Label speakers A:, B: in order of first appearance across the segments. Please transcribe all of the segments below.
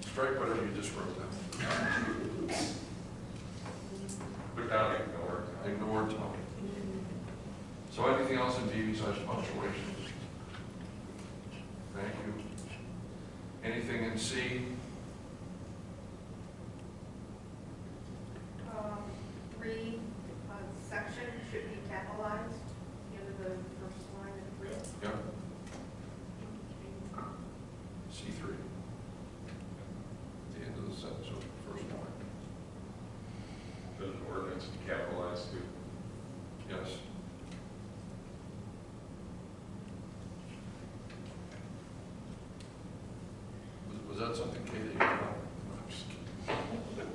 A: Strike whatever you just wrote down.
B: Put down ignore.
A: Ignore Tony. So anything else in D besides punctuations? Thank you. Anything in C?
C: Um, Three, uh, section should be capitalized, you know, the first line of three.
A: Yep. C three. The end of the sentence, of the first line.
B: Put an ordinance to capitalize to.
A: Yes. Was- Was that something Katie? No, I'm just kidding.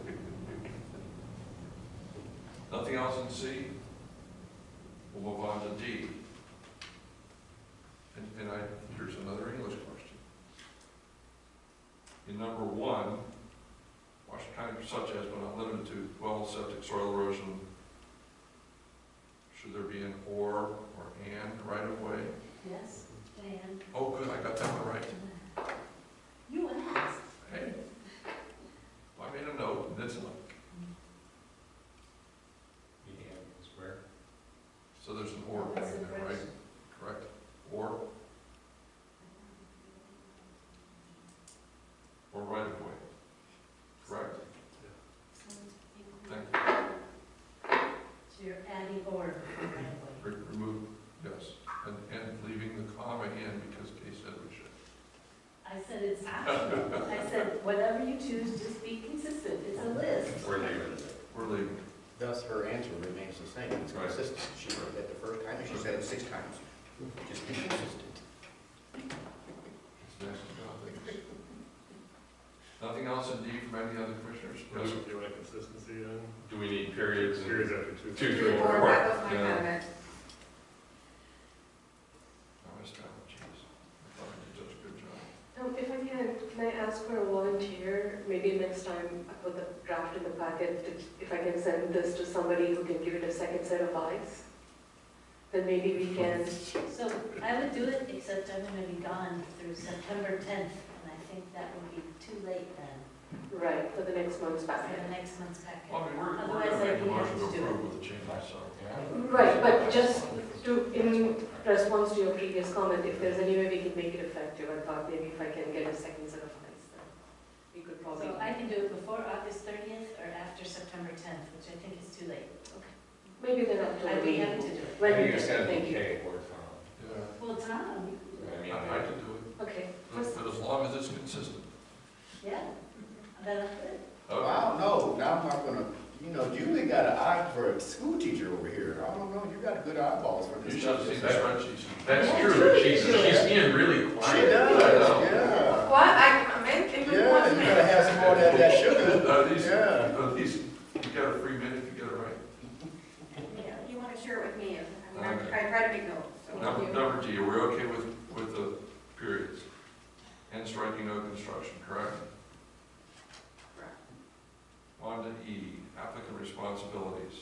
A: Nothing else in C? We'll move on to D. And, and I, here's another English question. In number one, Washington County such as but not limited to well, septic, soil erosion, should there be an or or and right of way?
D: Yes, and
A: Oh, good, I got that one right.
D: you asked.
A: Hey, I made a note, and that's enough.
B: Square.
A: So there's an or in
D: That's the
A: there, right?
D: question.
A: Correct. Or, or right of way. Correct? Thank you.
D: So you're adding order right away.
A: Re- Remove, yes, and, and leaving the comma in because Kay said we should.
D: I said it's optional. I said, whatever you choose, just be consistent. It's a list.
B: Or leave
A: We're leaving.
E: Thus, her answer remains the same, it's
A: Right.
E: consistent. She wrote that the first time, and she said it six times. Just be consistent.
A: It's next to nothing. Nothing else in D from any other commissioners? Yes,
F: Do you want a consistency then?
B: Do we need periods and
F: Periods after two.
B: Two, three,
C: Three,
B: four.
C: four, that was my
B: Yeah.
C: comment.
A: I was trying, jeez. I thought I did such a good job.
G: Um, If I can, can I ask for a volunteer? Maybe next time I put the draft in the packet, if- if I can send this to somebody who can give it a second set of eyes, then maybe we can,
D: So I would do it, except I'm gonna be gone through September tenth, and I think that would be too late then
G: right, for the next month's
D: for
G: packet.
D: the next month's packet.
A: Well, I mean, we're, we're
D: Otherwise,
A: gonna
D: I
A: make a
D: would have
A: motion to
D: to do it.
A: approve with the change, so.
G: Right, but just to, in response to your previous comment, if there's any way we can make it effective, I thought maybe if I can get a second set of eyes, then we could probably.
D: So I can do it before August thirtieth or after September tenth, which I think is too late.
G: Maybe then after the
D: I'd be happy
G: meeting.
D: to do it.
G: When
B: I
G: we
B: think I
G: do,
B: said
G: thank you.
B: okay or Tom.
A: Yeah,
D: Well, Tom,
B: I mean,
A: I I
B: I-
A: can do it,
G: Okay,
A: but but as long as it's consistent.
D: yeah, that's good.
A: Okay.
E: Wow, no, now I'm not gonna, you know, Julie got an eye for a school teacher over here. I don't know, you got good eyeballs for
A: You
E: this
A: should
E: stuff.
A: have seen
E: She
A: the spreadsheets.
B: that's true, she's, she's being really
E: does,
B: quiet. I know.
E: yeah.
C: Well, I comment, if it
E: Yeah, you
C: wasn't.
E: gotta have some more of that, that sugar.
A: Uh, these,
E: Yeah.
A: uh, these, you got a free minute to get it right.
C: Yeah, You want to share it with me, and I
A: Okay.
C: I try to make notes, so.
A: Number, number D, are we okay with, with the periods? And striking no construction, correct?
C: Correct.
A: On to E, applicant responsibilities.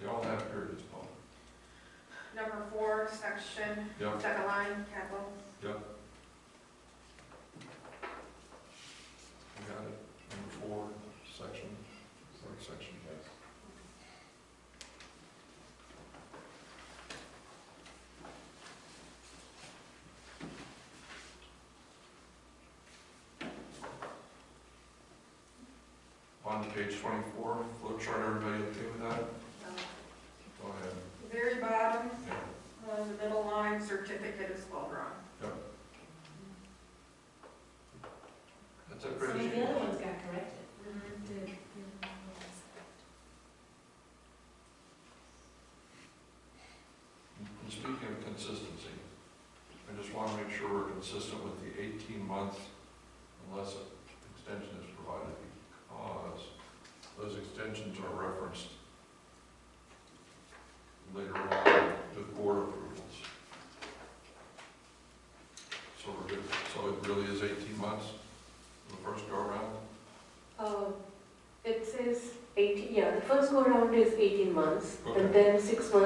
A: They all have periods, Paul.
C: Number four, section,
A: Yep.
C: second line, capital.
A: We got it, number four, section, third section. On to page twenty-four, flow chart, everybody okay with that?
C: Uh,
A: Go ahead.
C: Very bottom,
A: Yeah.
C: uh, the middle line, certificate is well drawn.
A: That's it,
D: So the other
A: Bridget?
D: ones got corrected.
A: And Speaking of consistency, I just want to make sure we're consistent with the 18 months unless an extension is provided because those extensions are referenced later on with board approvals. So we're good, so it really is 18 months for the first go around?
G: Um, It says 18, yeah, the first go-around is 18 months,
A: Okay.
G: and then six months